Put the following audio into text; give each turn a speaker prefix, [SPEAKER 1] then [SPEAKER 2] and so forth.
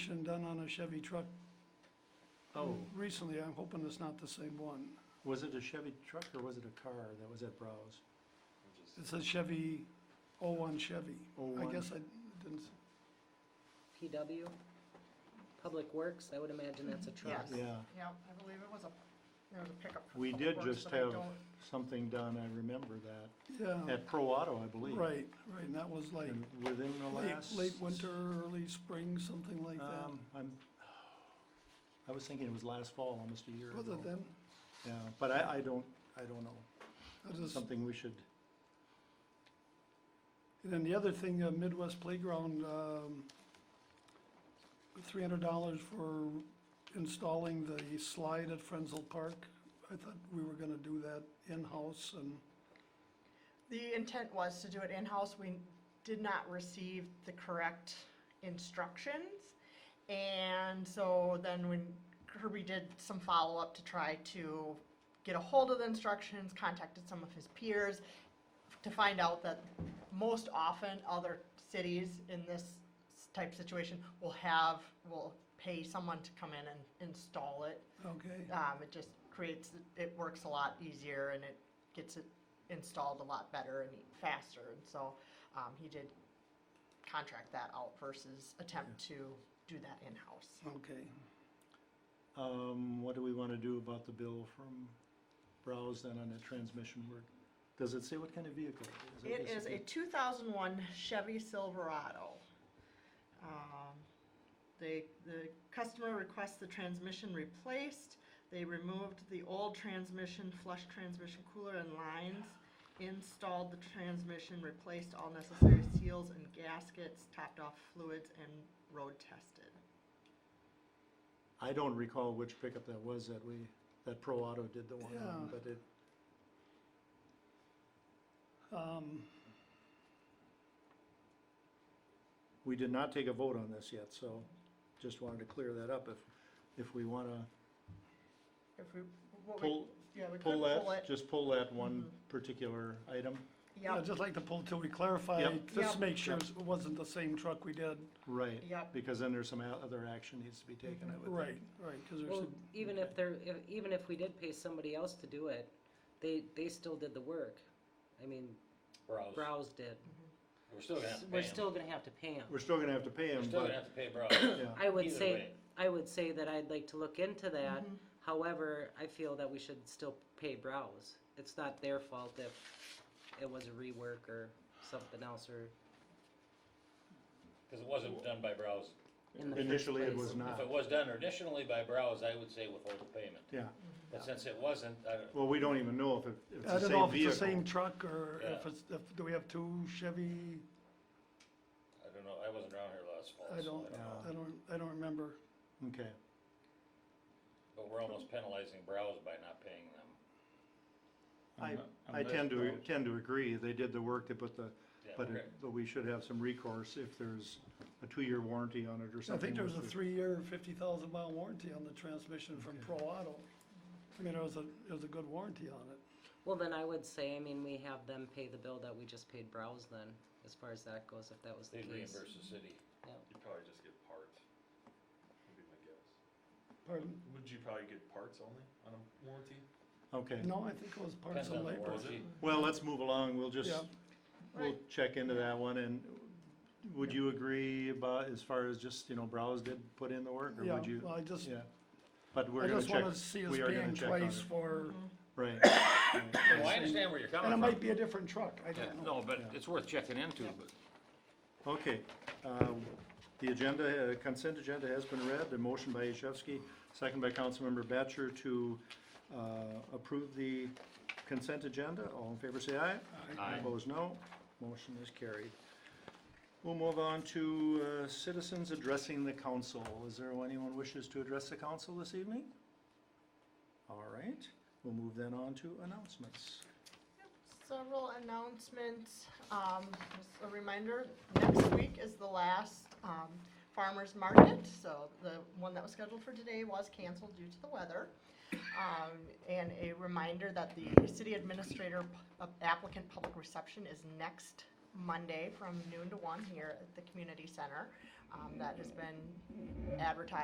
[SPEAKER 1] inspection done on a Chevy truck
[SPEAKER 2] Oh,
[SPEAKER 1] recently, I'm hoping it's not the same one.
[SPEAKER 2] was it a Chevy truck or was it a car that was at Browse?
[SPEAKER 1] It's a Chevy, oh-one Chevy. I
[SPEAKER 2] 01.
[SPEAKER 1] guess I didn't, s-
[SPEAKER 3] PW, Public Works, I would imagine that's a truck.
[SPEAKER 4] Yes.
[SPEAKER 2] Yeah,
[SPEAKER 4] Yeah, I believe it was a, there was a pickup. for
[SPEAKER 2] we
[SPEAKER 4] Public
[SPEAKER 2] did
[SPEAKER 4] Works,
[SPEAKER 2] just
[SPEAKER 4] but I
[SPEAKER 2] have
[SPEAKER 4] don't-
[SPEAKER 2] something done, I remember that,
[SPEAKER 1] yeah,
[SPEAKER 2] at Pro Auto, I believe.
[SPEAKER 1] Oh. right, right, and that was like
[SPEAKER 2] And within the
[SPEAKER 1] late,
[SPEAKER 2] last.
[SPEAKER 1] late winter, early spring, something like that.
[SPEAKER 2] Um, I'm, I was thinking it was last fall, almost a year
[SPEAKER 1] Was
[SPEAKER 2] ago.
[SPEAKER 1] it then?
[SPEAKER 2] Yeah, but I, I don't, I don't know,
[SPEAKER 1] I just-
[SPEAKER 2] something we should,
[SPEAKER 1] And then the other thing, uh, Midwest Playground, um, three hundred dollars for installing the slide at Frenzel Park. I thought we were gonna do that in-house and,
[SPEAKER 4] The intent was to do it in-house. We did not receive the correct instructions. And so then when Kirby did some follow-up to try to get a hold of the instructions, contacted some of his peers to find out that most often other cities in this s- type situation will have, will pay someone to come in and install it
[SPEAKER 1] okay,
[SPEAKER 4] um, it just creates, it works a lot easier and it gets it installed a lot better and faster. And so, um, he did contract that out versus attempt to do that in-house.
[SPEAKER 1] okay.
[SPEAKER 2] um, what do we wanna do about the bill from Browse then on the transmission work? Does it say what kind of vehicle? it is? I
[SPEAKER 4] It
[SPEAKER 2] guess
[SPEAKER 4] is a two thousand one Chevy Silverado. Um, They, the customer requests the transmission replaced. They removed the old transmission, flush transmission cooler and lines, installed the transmission, replaced all necessary seals and gaskets, topped off fluids and road tested.
[SPEAKER 2] I don't recall which pickup that was that we, that Pro Auto did the one on,
[SPEAKER 1] Yeah.
[SPEAKER 2] but it,
[SPEAKER 1] Um,
[SPEAKER 2] we did not take a vote on this yet, so just wanted to clear that up if, if we wanna
[SPEAKER 4] If we, what we,
[SPEAKER 2] pull,
[SPEAKER 4] yeah, we could
[SPEAKER 2] pull
[SPEAKER 4] pull
[SPEAKER 2] that,
[SPEAKER 4] it. Mm-hmm.
[SPEAKER 2] just pull that one particular item.
[SPEAKER 1] yeah,
[SPEAKER 4] Yep,
[SPEAKER 1] I'd just like to pull till we clarify,
[SPEAKER 2] Yep.
[SPEAKER 1] just
[SPEAKER 4] Yep.
[SPEAKER 1] make sure it wasn't the same truck we did.
[SPEAKER 2] Right,
[SPEAKER 4] yep,
[SPEAKER 2] because then there's some o- other action needs to be taken, I would think.
[SPEAKER 1] Right, right, cause there's
[SPEAKER 3] Well,
[SPEAKER 1] some-
[SPEAKER 3] even if they're, if- even if we did pay somebody else to do it, they, they still did the work. I mean,
[SPEAKER 5] Browse.
[SPEAKER 3] Browse did.
[SPEAKER 5] We're still gonna have to pay
[SPEAKER 3] We're
[SPEAKER 5] 'em.
[SPEAKER 3] still gonna have to pay them.
[SPEAKER 2] We're still gonna have to pay
[SPEAKER 5] We're
[SPEAKER 2] him,
[SPEAKER 5] still gonna
[SPEAKER 2] but,
[SPEAKER 5] have to pay Browse.
[SPEAKER 2] yeah,
[SPEAKER 3] I would
[SPEAKER 5] Either
[SPEAKER 3] say,
[SPEAKER 5] way.
[SPEAKER 3] I would say that I'd like to look into that.
[SPEAKER 4] Mm-hmm.
[SPEAKER 3] However, I feel that we should still pay Browse. It's not their fault if it was a rework or something else or
[SPEAKER 5] Cause it wasn't done by Browse.
[SPEAKER 3] in the first
[SPEAKER 2] initially it
[SPEAKER 3] place.
[SPEAKER 2] was
[SPEAKER 5] If
[SPEAKER 2] not,
[SPEAKER 1] Ah.
[SPEAKER 5] it was done initially by Browse, I would say withhold the payment.
[SPEAKER 2] yeah.
[SPEAKER 1] Ah.
[SPEAKER 5] But since it wasn't, I don't,
[SPEAKER 2] Well, we don't even know if it, if
[SPEAKER 1] I
[SPEAKER 2] it's the
[SPEAKER 1] don't know
[SPEAKER 2] same
[SPEAKER 1] if it's the
[SPEAKER 2] vehicle.
[SPEAKER 1] same truck or if
[SPEAKER 5] Yeah.
[SPEAKER 1] it's, if, do we have two Chevy?
[SPEAKER 5] I don't know, I wasn't around here last fall, so
[SPEAKER 1] I don't,
[SPEAKER 2] know.
[SPEAKER 1] I don't, I don't remember.
[SPEAKER 2] Okay,
[SPEAKER 5] But we're almost penalizing Browse by not paying them.
[SPEAKER 2] I,
[SPEAKER 6] Unle-
[SPEAKER 2] I
[SPEAKER 6] unless
[SPEAKER 2] tend to,
[SPEAKER 6] those-
[SPEAKER 2] tend to agree, they did the work, they put the,
[SPEAKER 5] Yeah,
[SPEAKER 2] but,
[SPEAKER 5] okay.
[SPEAKER 2] it- but we should have some recourse if there's a two-year warranty on it or
[SPEAKER 1] I
[SPEAKER 2] something.
[SPEAKER 1] think there was a
[SPEAKER 2] with the-
[SPEAKER 1] three-year, fifty thousand mile warranty on the transmission from Pro Auto. I mean, it was a, it was a good warranty on it.
[SPEAKER 3] Well, then I would say, I mean, we have them pay the bill that we just paid Browse then, as far as that goes, if that was the
[SPEAKER 5] They'd
[SPEAKER 3] case.
[SPEAKER 5] reimburse the city.
[SPEAKER 3] Yeah.
[SPEAKER 6] You'd probably just get parts, would be my guess.
[SPEAKER 1] Pardon?
[SPEAKER 6] Would you probably get parts only on a warranty?
[SPEAKER 2] Okay,
[SPEAKER 1] No, I think it was parts
[SPEAKER 5] Depends on
[SPEAKER 1] and
[SPEAKER 5] the
[SPEAKER 1] labor.
[SPEAKER 6] warranty.
[SPEAKER 5] warranty.
[SPEAKER 2] well, let's move along, we'll just,
[SPEAKER 1] Yeah.
[SPEAKER 2] we'll check into that one, and would you agree about, as far as just, you know, Browse did put in the work, or
[SPEAKER 1] Yeah,
[SPEAKER 2] would you?
[SPEAKER 1] well, I just,
[SPEAKER 2] Yeah, but
[SPEAKER 1] I
[SPEAKER 2] we're gonna
[SPEAKER 1] just
[SPEAKER 2] check,
[SPEAKER 1] wanna see us
[SPEAKER 2] we are gonna
[SPEAKER 1] paying
[SPEAKER 2] check on
[SPEAKER 1] twice
[SPEAKER 2] it,
[SPEAKER 1] for,
[SPEAKER 2] right.
[SPEAKER 5] Well, I understand where you're
[SPEAKER 1] and it
[SPEAKER 5] coming
[SPEAKER 1] might
[SPEAKER 5] from.
[SPEAKER 1] be a different truck, I don't know.
[SPEAKER 5] No, but it's worth checking into, but
[SPEAKER 2] Okay, um, the agenda, uh, consent agenda has been read, the motion by Yashewski, second by Councilmember Batchor to uh, approve the consent agenda. All in favor, say aye.
[SPEAKER 5] Aye.
[SPEAKER 2] Opposed, no. Motion is carried. We'll move on to uh, citizens addressing the council. Is there anyone wishes to address the council this evening? All right, we'll move then on to announcements.
[SPEAKER 4] Several announcements. Um, just a reminder, next week is the last, um, farmer's market, so the one that was scheduled for today was canceled due to the weather. Um, and uh, a reminder that the city administrator p- applicant public reception is next Monday from noon to one here at the community center. Um, that has been advertised